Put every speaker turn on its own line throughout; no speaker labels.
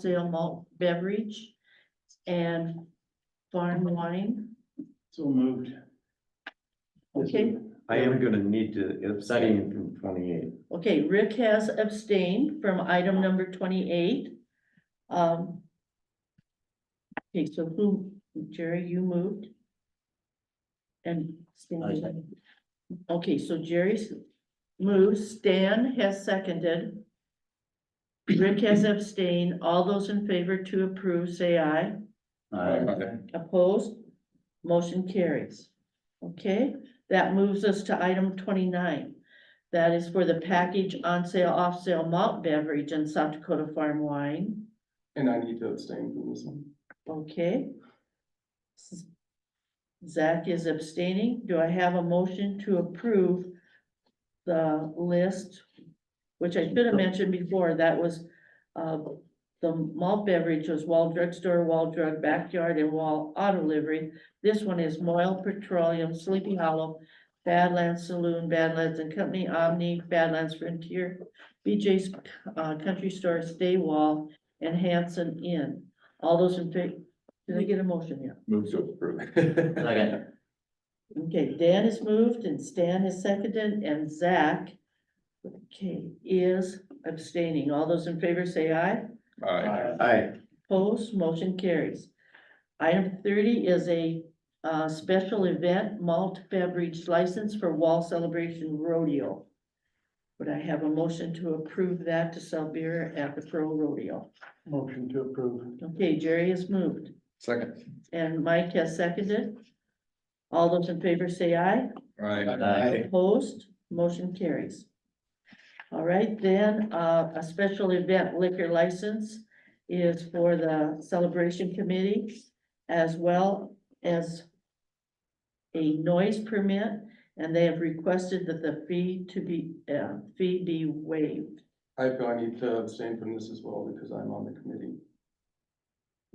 sale malt beverage and farm wine.
So moved.
Okay.
I am gonna need to abstain from twenty-eight.
Okay, Rick has abstained from item number twenty-eight. Um. Okay, so who, Jerry, you moved? And Stan, okay, so Jerry's moved, Stan has seconded. Rick has abstained. All those in favor to approve, say aye.
Uh,
Opposed? Motion carries. Okay, that moves us to item twenty-nine. That is for the package on sale, off sale malt beverage and South Dakota farm wine.
And I need to abstain from this one.
Okay. Zach is abstaining. Do I have a motion to approve the list? Which I should have mentioned before, that was, uh, the malt beverage was Wall Drug Store, Wall Drug Backyard, and Wall Auto Livery. This one is Moyle Petroleum, Sleepy Hollow, Badlands Saloon, Badlands and Company, Omni, Badlands Frontier, BJ's, uh, Country Store, Stay Wall, and Hanson Inn. All those in favor, did I get a motion here?
Move to approve.
Second.
Okay, Dan has moved and Stan has seconded and Zach. Okay, is abstaining. All those in favor say aye.
Aye.
Aye.
Opposed, motion carries. Item thirty is a uh special event malt beverage license for Wall Celebration Rodeo. Would I have a motion to approve that to sell beer at the Pro Rodeo?
Motion to approve.
Okay, Jerry has moved
Second.
and Mike has seconded. All those in favor say aye.
Aye.
Opposed, motion carries. All right, then, uh, a special event liquor license is for the celebration committee as well as a noise permit, and they have requested that the fee to be, uh, fee be waived,
I feel I need to abstain from this as well because I'm on the committee.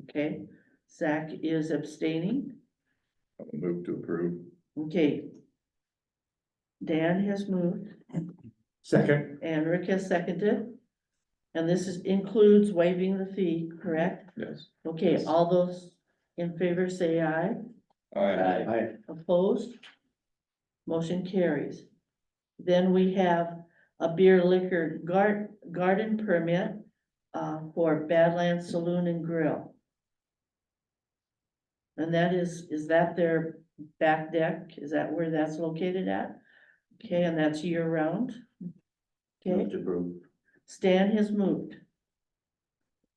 okay? Zach is abstaining,
Move to approve.
okay? Dan has moved.
Second.
And Rick has seconded. And this is, includes waiving the fee, correct?
Yes.
Okay, all those in favor say aye.
Aye.
Aye.
Opposed? Motion carries. Then we have a beer liquor gar- garden permit uh, for Badlands Saloon and Grill. And that is, is that their back deck? Is that where that's located at? Okay, and that's year round? Okay,
Move to approve.
Stan has moved.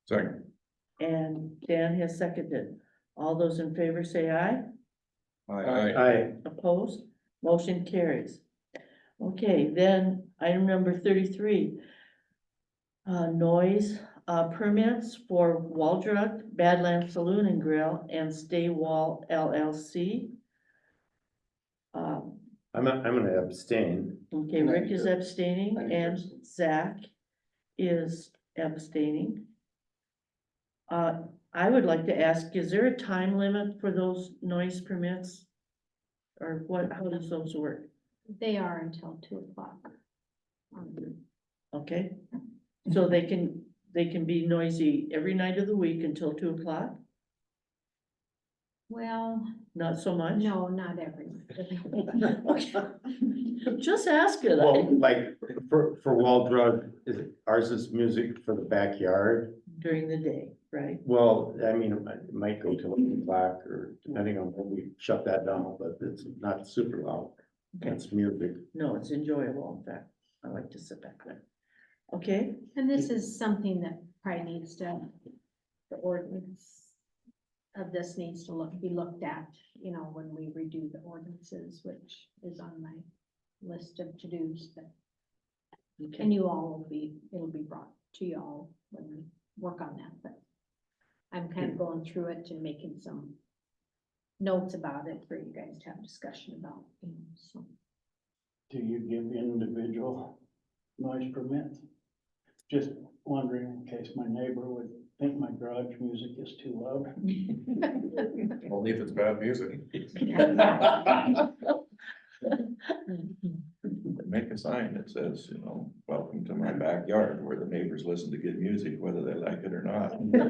Second.
And Dan has seconded. All those in favor say aye.
Aye.
Aye.
Opposed? Motion carries. Okay, then item number thirty-three. Uh, noise, uh, permits for Waldrop Badlands Saloon and Grill and Stay Wall LLC. Um,
I'm, a- I'm gonna abstain.
okay,
And I
Rick
need
is
to-
abstaining
I need to
and
abstain.
Zach is abstaining. Uh, I would like to ask, is there a time limit for those noise permits? Or what, how does those work?
They are until two o'clock. Um,
Okay, so
Mm-hmm.
they can, they can be noisy every night of the week until two o'clock?
Well,
Not so much?
no, not everyone.
Okay. Just ask it.
Well, like, for, for Wall Drug, is, it- ours is music for the backyard.
During the day, right?
Well, I mean, it might- it might go till eight o'clock or depending on when we shut that down, but it's not super loud.
Okay,
It's music.
no, it's enjoyable, in fact, I like to sit back there. Okay,
And this is something that probably needs to, the ordinance of this needs to look, be looked at, you know, when we redo the ordinances, which is on my list of to-dos. that-
okay,
And you all will be, it'll be brought to you all when we work on that, but I'm kind of going through it and making some notes about it for you guys to have discussion about, you know, so.
Do you give individual noise permits? Just wondering in case my neighbor would think my garage music is too loud.
Only if it's bad music. make a sign that says, you know, welcome to my backyard, where the neighbors listen to good music, whether they like it or not.